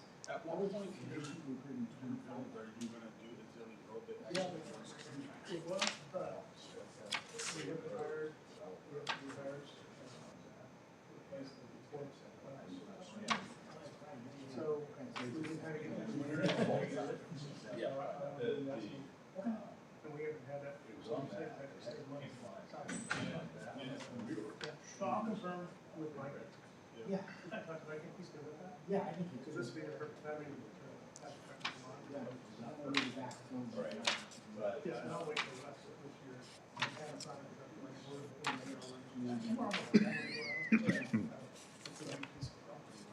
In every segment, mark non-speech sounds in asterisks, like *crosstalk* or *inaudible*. was on. Yeah, but it was, but we have hired, we have we hired. replaced the reports at last. So, we just had to get that winner. Yeah. Uh, and that's- And we haven't had that. So I'll confirm with Mike. Yeah, Talk to Mike if he's good with that. yeah, I think you Because could. this would be the first time we. Yeah, I'm gonna be back till- Right. Yeah, and I'll wait till that's this year. Kind of sign it up like we're- we're in the middle. It's a big piece of property.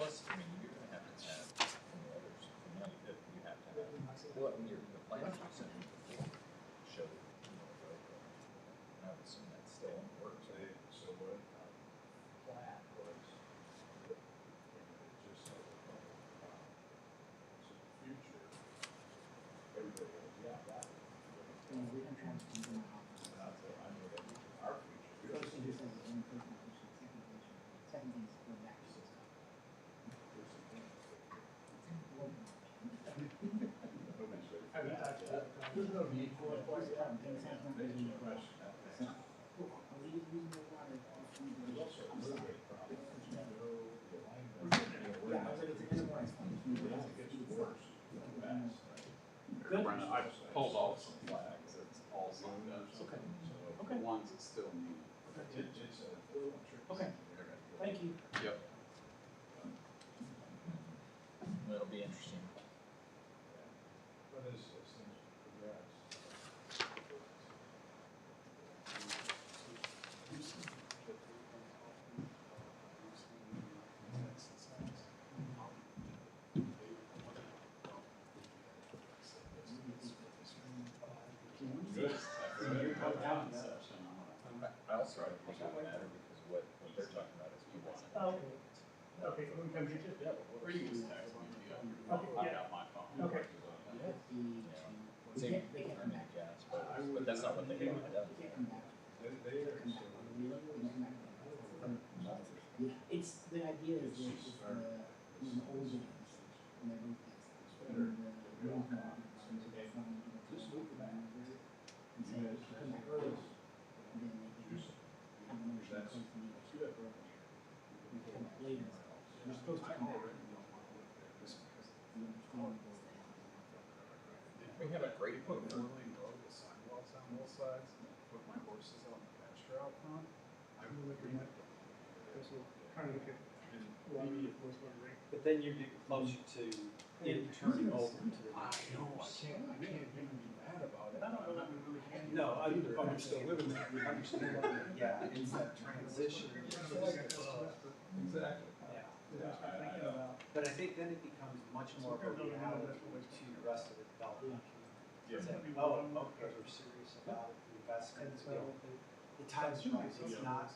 Plus, I mean, you're gonna have to have from the others, from now you have- you have to have, well, in your, the plans you sent me before, show, you know, the road. And I would assume that's still in works, right? So what? Plat was. you know, we can transfer to my office. First thing he says is one person, we should second thing is- second thing is go back to this guy. Well, I haven't talked to that guy. There's no need for it. There's no need for it. So, I'll leave you the water off from the- I'm sorry. Yeah, I was like, it's a good one. It's fine. It's fine. Good. Brenda, I pulled off some flags, it's all signed up. Okay. So, Okay. Ones that still need. Okay. Thank you. Yep. It'll be interesting. I also don't think it would matter because what, what they're talking about is you want. Oh, Okay, when we come get you. Or you can just text me, yeah. Okay, I yeah. got my phone. uh, Okay. It would be Yeah. to- It's they a can't- they can't come permanent back. gas, but, but that's not what they want, it They can't come back. They can't come back. We don't really come back. Yeah, It's, the idea is that it's uh, the, you know, old days, and they do things. And the new models, and so it's not gonna be the same. And so they come back early, and then they can have an emotional close to me. They come back later. You're supposed to come back. You know, it's going to go down. We have a great Put a book. rolling road with sidewalks on both sides, put my horses out in the pasture out front. I would look at Because we're trying to look at water enforcement rate. But then you get closer to it turning over to the. I know, I can't, I can't even be mad about it. I don't know that we really can. No, I Either, I'm understand. still living there, I understand. *laughs* Yeah, it's that transition. Kind of like a estimate, but Exactly. Yeah. we're just thinking about- But I think then it becomes much more of a reality to the rest of the development. It's like, oh, okay, we're serious about it, we invest in And it, you know, so, the time's right, it's not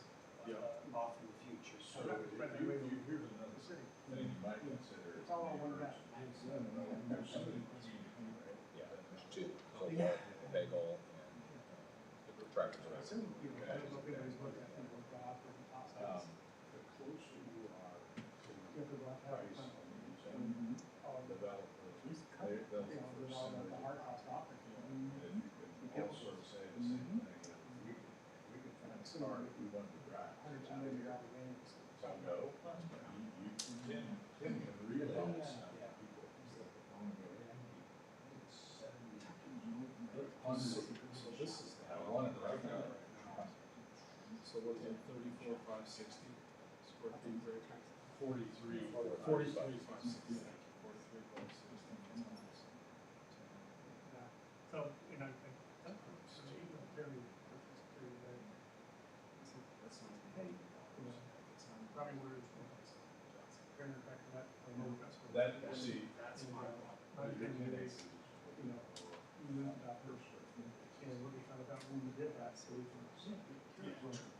uh, off in the future, so. I'm not friendly with the city. It's all on one map. Yeah, there's two, Coldwell, Bagel, and the tractor. I assume, you know, I don't know if anybody's looked at it, looked off and Um, outside. the closer you are to You have to go out and price on find these and Mhm. all the, developers, Just cut they, it. they'll. you know, with all the the hard cost off. it, you know. And you can also say the same thing, we can, we can find a car if we wanted to drive. Hundreds of millions of games. So no, you, you can, can realize how people. So so this is how one of the right now. So what is it, thirty-four, five sixty square feet per acre? Forty-three. Forty-three, five sixty. Forty-three, five sixty. Yeah. So, you know, I think, that's pretty, very, very, very, That's not. probably where it's from. Very back to that, I know that's where- That, see, that's And, my. uh, My opinion is, you know, you moved out first, and we kind of got when we did that, so we can. Yeah.